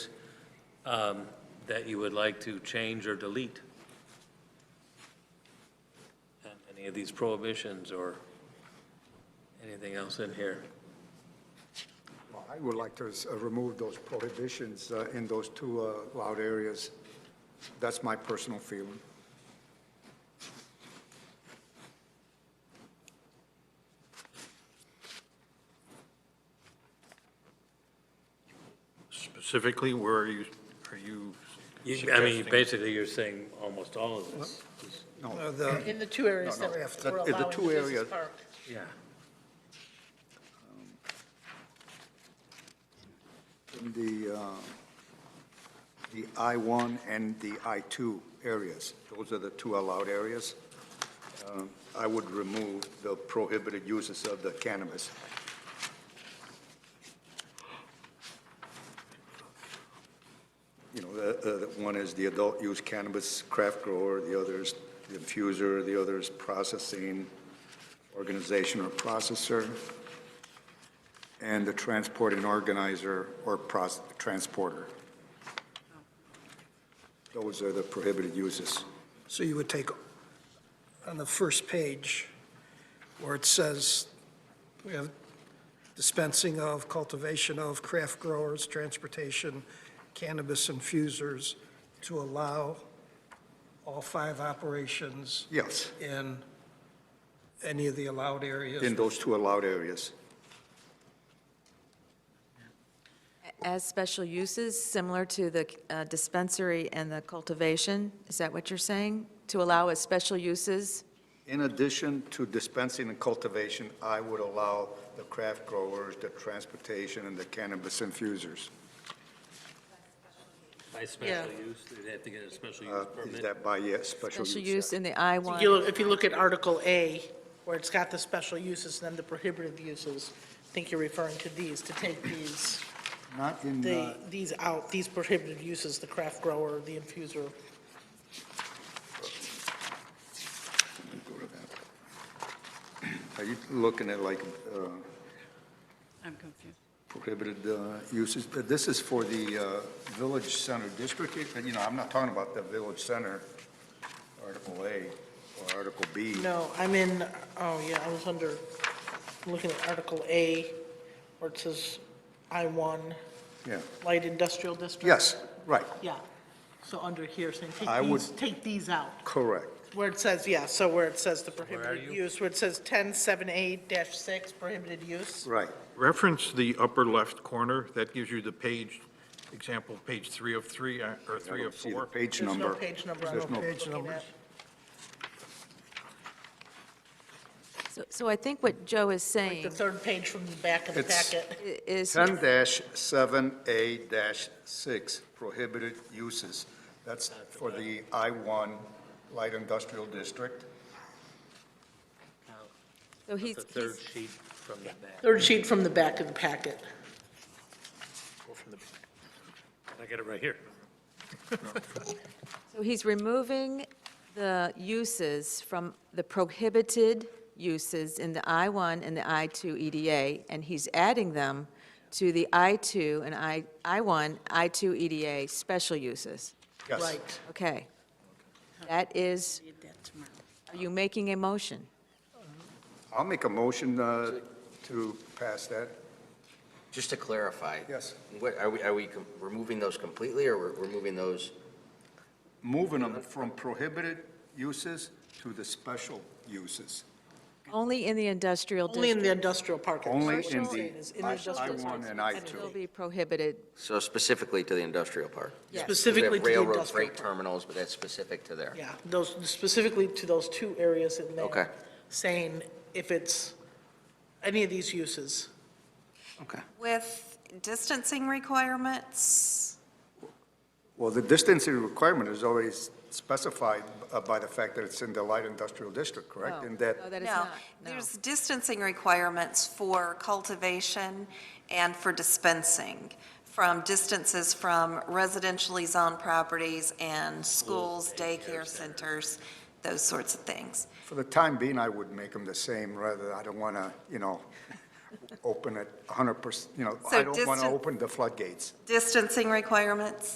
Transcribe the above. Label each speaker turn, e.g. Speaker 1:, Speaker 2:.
Speaker 1: um, that you would like to change or delete? And Any of these prohibitions or anything else in here?
Speaker 2: Well, I would like to s- uh, remove those prohibitions uh, in those two uh, loud areas. That's my personal feeling.
Speaker 3: Specifically, where are you, are you
Speaker 1: You- I mean,
Speaker 3: suggesting?
Speaker 1: basically, you're saying almost all of this.
Speaker 2: No,
Speaker 4: In the two areas
Speaker 2: No,
Speaker 4: that
Speaker 2: no.
Speaker 4: we're
Speaker 2: The- the
Speaker 4: allowing
Speaker 2: two
Speaker 4: the business
Speaker 2: areas-
Speaker 4: park.
Speaker 1: Yeah.
Speaker 2: in the, uh, the I-1 and the I-2 areas. Those are the two allowed areas. Um, I would remove the prohibited uses of the cannabis. You know, the, uh, the one is the adult use cannabis craft grower, the other is the infuser, the other is processing organization or processor and the transport and organizer or pros- transporter. Those are the prohibited uses.
Speaker 5: So you would take, on the first page, where it says, we have dispensing of, cultivation of, craft growers, transportation, cannabis infusers, to allow all five operations
Speaker 2: Yes,
Speaker 5: in any of the allowed areas.
Speaker 2: in those two allowed areas.
Speaker 6: As special uses, similar to the uh, dispensary and the cultivation, is that what you're saying? To allow as special uses?
Speaker 2: In addition to dispensing and cultivation, I would allow the craft growers, the transportation, and the cannabis infusers.
Speaker 1: By special use, they'd have to get a special
Speaker 2: Uh,
Speaker 1: use
Speaker 2: Is
Speaker 1: permit.
Speaker 2: that by, yes, special use?
Speaker 6: Special use in the I-1?
Speaker 4: You look- If you look at Article A, where it's got the special uses and then the prohibited uses, I think you're referring to these, to take these,
Speaker 2: Not in,
Speaker 4: the,
Speaker 2: uh,
Speaker 4: these out, these prohibited uses, the craft grower, the infuser.
Speaker 2: go to that. are you looking at like uh,
Speaker 7: I'm confused.
Speaker 2: prohibited uh, uses? But This is for the uh, Village Center District, It- you know, I'm not talking about the Village Center, Article A or Article B.
Speaker 4: No, I'm in, oh yeah, I was under, I'm looking at Article A, where it says I-1,
Speaker 2: Yeah,
Speaker 4: light industrial district.
Speaker 2: yes, right,
Speaker 4: Yeah, so under here, saying, take
Speaker 2: I would-
Speaker 4: these, take these out.
Speaker 2: correct.
Speaker 4: Where it says, yeah, so where it says the
Speaker 1: you?
Speaker 4: prohibited use, where it says 1078-6, prohibited use.
Speaker 2: Right.
Speaker 3: Reference the upper left corner, that gives you the page, example, page three of three, uh, or
Speaker 2: I
Speaker 3: three
Speaker 2: don't
Speaker 3: of
Speaker 2: see the
Speaker 3: four.
Speaker 2: page
Speaker 4: There's
Speaker 2: number.
Speaker 4: no page number.
Speaker 2: There's no-
Speaker 5: page numbers.
Speaker 6: So- So I think what Joe is
Speaker 4: The
Speaker 6: saying
Speaker 4: third page from the back of the
Speaker 2: It's-
Speaker 4: packet.
Speaker 6: i- is,
Speaker 2: 10-7A-6, prohibited uses. That's for the I-1 Light Industrial District.
Speaker 6: so he's,
Speaker 1: The third
Speaker 6: he's-
Speaker 1: sheet from the back.
Speaker 4: Third sheet from the back of the packet.
Speaker 1: I got it right here.
Speaker 6: so he's removing the uses from the prohibited uses in the I-1 and the I-2 EDA, and he's adding them to the I-2 and I, I-1, I-2 EDA special uses.
Speaker 2: Yes.
Speaker 4: Right.
Speaker 6: Okay. That is,
Speaker 7: Read that tomorrow.
Speaker 6: are you making a motion?
Speaker 2: I'll make a motion uh, to pass that.
Speaker 8: Just to clarify.
Speaker 2: Yes.
Speaker 8: What, are we, are we com- removing those completely, or we're removing those?
Speaker 2: Moving them from prohibited uses to the special uses,
Speaker 6: Only in the industrial
Speaker 4: Only in the
Speaker 6: district
Speaker 4: industrial park.
Speaker 2: only
Speaker 4: That's what
Speaker 2: in
Speaker 4: I'm saying, is
Speaker 2: the
Speaker 4: in industrial park.
Speaker 2: I-1 and
Speaker 6: will
Speaker 2: I-2.
Speaker 6: be prohibited,
Speaker 8: So specifically to the industrial park?
Speaker 6: yes.
Speaker 8: 'Cause we have
Speaker 4: Specifically to the
Speaker 8: Railroad
Speaker 4: industrial
Speaker 8: freight
Speaker 4: park.
Speaker 8: terminals, but that's specific to there.
Speaker 4: Yeah, those, specifically to those two areas in there.
Speaker 8: Okay.
Speaker 4: Saying if it's any of these uses.
Speaker 8: Okay.
Speaker 9: With distancing requirements,
Speaker 2: Well, the distancing requirement is always specified uh, by the fact that it's in the light industrial district, correct?
Speaker 6: No,
Speaker 2: And that
Speaker 6: Oh, No, that is
Speaker 9: no.
Speaker 6: not, no.
Speaker 9: There's distancing requirements for cultivation and for dispensing from distances from residentially zoned properties and schools, daycare centers, those sorts of things.
Speaker 2: For the time being, I would make them the same, rather, I don't want to, you know, open it 100%, you know,
Speaker 9: So
Speaker 2: I don't want to
Speaker 9: distan-
Speaker 2: open the floodgates.
Speaker 9: Distancing requirements?